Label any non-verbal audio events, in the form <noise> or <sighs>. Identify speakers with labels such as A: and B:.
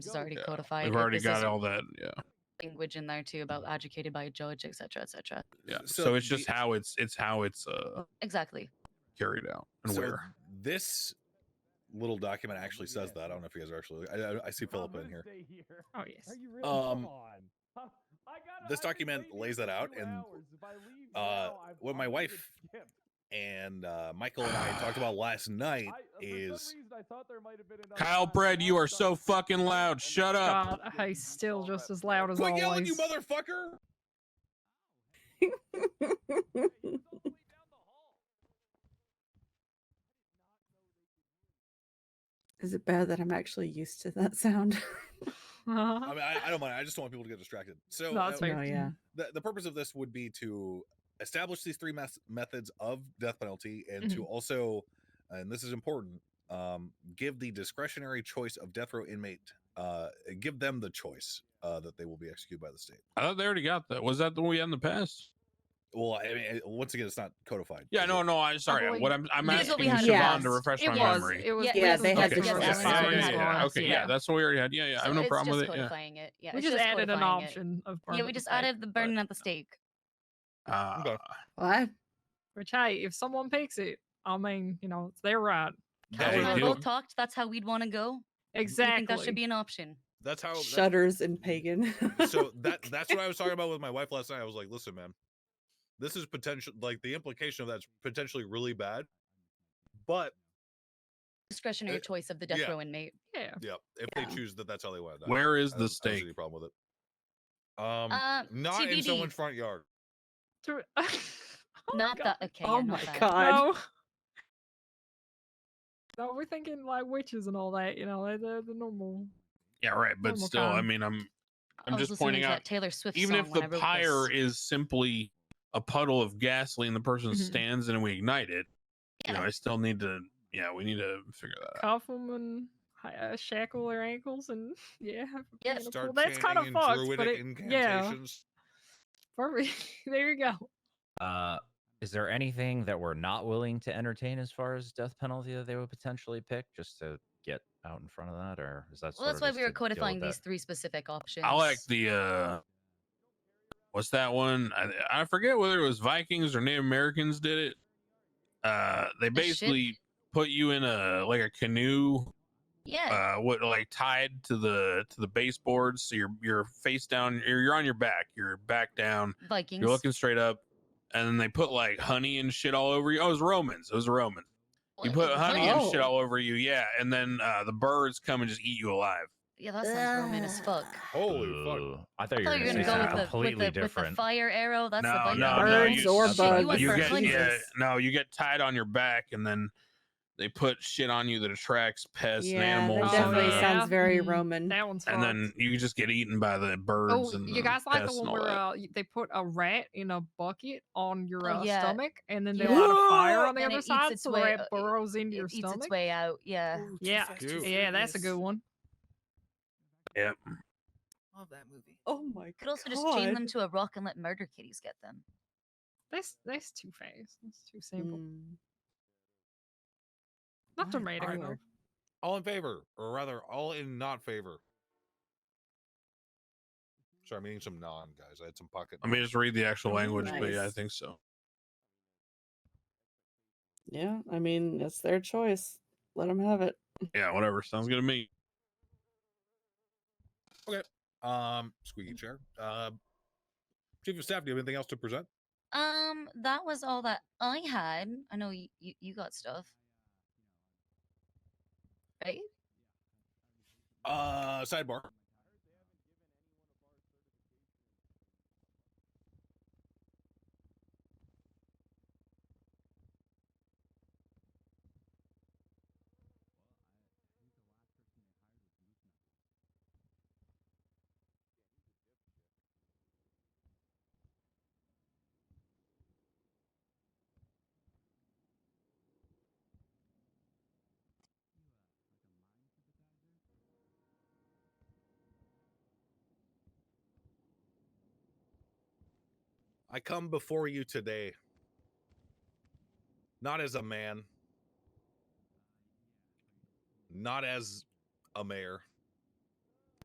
A: is already
B: Yeah,
A: codified.
B: We've
A: if
B: already
A: this
B: got
A: is
B: all that. Yeah.
A: language in there too about educated by a judge, etc., cetera, etc. Cetera.
B: Yeah. So,
C: So
B: it's just
C: the-
B: how it's it's how it's uh
A: Exactly.
B: carried out and
C: So
B: where.
C: This little document actually says that. I don't know if you guys are actually. I, I- I see Philip in here.
D: Oh yes.
C: Um,
E: um,
C: this document lays that out, and, uh, what my wife <laughs> And uh, Michael and I uh, talked about last night. is-
B: Kyle Bread, you are so fucking loud. Shut up.
D: God, he's still just as loud as
C: Quit
D: always.
C: yelling, you motherfucker!
F: <laughs> Is it bad that I'm actually used to that sound? <laughs>
C: I mean, I, I don't mind. I just don't want people to get distracted. So
D: No, that's
C: uh,
D: fair.
F: no, yeah.
C: the, the purpose of this would be to establish these three mes- methods of death penalty and
D: Mm-hmm.
C: to also and this is important um, give the discretionary choice of death row inmate uh, give them the choice uh, that they will be executed by the state
B: I thought they already got that. Was that the one we had in the past?
C: well i mean it- once again it's not codified
B: Yeah,
C: is
B: no,
C: it?
B: no, I sorry.
A: boy.
B: What I'm I'm
A: This is what
B: asking
A: we
B: Siobhan
A: had last.
B: to refresh
A: It
B: my
A: was-
B: memory.
D: It was.
A: Yeah,
D: we
F: yeah,
D: just
F: they had
B: Okay.
F: to
D: adopted
B: Yeah,
F: just
D: it
F: add
D: as
B: yeah,
F: it on
B: yeah,
D: a
B: yeah.
F: as well,
D: response,
B: Okay, yeah.
D: yeah.
B: that's the way we already had. Yeah, yeah. I have no
A: it's
B: problem
A: just
B: with it. Yeah.
A: codifying it. Yeah,
D: We
A: it's
D: just added an
A: codifying it.
D: option of burn
A: Yeah,
D: at
A: we
D: the
A: just
D: stake,
A: added the
D: but-
A: burden at the stake.
B: Uh,
F: What?
D: Which hey, if someone picks it, I mean, you know, it's their right.
A: Kyle
B: they
A: and I
B: do-
A: both talked. That's how we'd want to go.
D: Exactly.
A: You think that should be an option?
C: that's how Oh, that-
F: Shudders and pagan. <laughs>
D: <laughs>
C: so that that's what i was talking about with my wife last night i was like listen man this is potential like the implication of that's potentially really bad but
A: Discretionary
C: Uh,
A: choice of the death
C: yeah.
A: row inmate.
D: yeah.
C: yeah if
F: Yeah.
C: they choose that that's how they want it I-
B: Where is
C: I
B: the
C: don't- I don't see
B: stake?
C: any problem with it um
A: Uh,
C: Not in
A: TBD.
C: someone's front yard.
D: <laughs> To- Oh,
A: Not
D: God.
A: that. Okay.
F: oh
A: yeah,
F: my
A: not that.
F: god.
D: No. No, we're thinking like witches and all that, you know, they're, they're the normal.
B: yeah, right. But
D: Normal
B: still, I
D: time.
B: mean, I'm I'm
A: I was
B: just
A: listening
B: pointing
A: to
B: out
A: that Taylor Swift
B: even
A: song
B: if
A: when I
B: the
A: wrote
B: pyre
A: this.
B: is simply a puddle of gasoline, the person
D: Mhm.
B: stands and we ignite it. You know,
A: Mm-hmm. Yeah.
B: I still need to. Yeah, we need to figure that out.
D: Cuff them and hi- uh, shackle their ankles and <laughs> yeah. have a
A: Yeah.
D: piano
C: Start
D: pool. That's kind of
C: chanting in
D: fucked, but
C: druidic
D: it, yeah,
C: incantations.
D: perfect. <laughs> there you go.
G: Uh, is there anything that we're not willing to entertain as far as death penalty that they would potentially pick just to get out in front of that, or is that?
A: Well,
G: sorta
A: that's why
G: just
A: we were
G: to deal with
A: codifying
G: that?
A: these three specific options.
B: I like the. uh What's that one? I, I forget whether it was Vikings or Native Americans did it. Uh, they
A: The ship-
B: basically put you in a like a canoe,
A: Yeah.
B: uh, what like tied to the to the baseboards, so you're you're face down, you're, you're on your back, you're back down,
A: Vikings.
B: uh, you're looking straight up, and then they put like honey and shit all over you. Oh, it was Romans. It was Romans. You
A: Well,
B: put
A: it-
B: honey and shit
F: Oh.
B: all over you, yeah, and then uh, the birds come and just eat you alive.
D: Oh.
A: Yeah, that sounds Roman as fuck.
C: <sighs> Holy fuck.
G: Ooh, I thought
A: I thought
G: you were going
A: you were
G: to
A: gonna
G: say
A: go
G: something
A: with the, with,
G: completely
A: the, with the
G: different.
A: fire arrow. That's the
B: no,
A: Viking.
B: no, no,
F: Birds
B: you,
F: or
B: shit,
F: bugs.
A: You
B: You
A: went for
B: get, yeah,
A: cleanses.
B: no, you get tied on your back, and then they put shit on you that attracts pests
F: yeah,
B: and
F: that
B: animals, and,
F: definitely
B: uh,
F: sounds very
D: Mm.
F: Roman.
D: That one's
B: and
D: fucked.
B: then you just get eaten by the birds.
D: Oh,
B: and
D: you guys like the one where
B: uh,
D: uh, y- they put a rat in a bucket on your
A: Oh,
D: uh,
A: yeah.
D: stomach, and then they
A: Yeah.
D: light a fire on the
A: And it
D: other
A: eats
D: side,
A: its
D: so
A: way-
D: the
A: uh,
D: rat
A: it-
D: burrows into your
A: It eats
D: stomach.
A: its way out. Yeah.
F: Oh,
D: yeah, yeah, that's a good one.
B: yep.
E: Love that movie.
F: Oh my
A: Could also
F: god.
A: just chain them to a rock and let murder kitties get them.
D: That's that's too fast. That's too simple.
F: Mm.
A: Mm.
D: Not
F: My
D: dramatic
F: lord.
D: enough.
C: All in favor, or rather, all in not favor. Sorry, I'm eating some non, guys. I had some pocket.
B: Let me just read the actual
F: Mhm,
B: language, but yeah, I
F: nice.
B: think so.
F: Yeah, I mean, it's their choice. Let them have it.
B: Yeah, whatever. Sounds good to me.
C: Um, squeaky chair. Uh, Chief of Staff, do you have anything else to present?
A: Um, that was all that I had. I know you you, you got stuff. Right?
C: Uh, sidebar. I come before you today, not as a man, not as a mayor,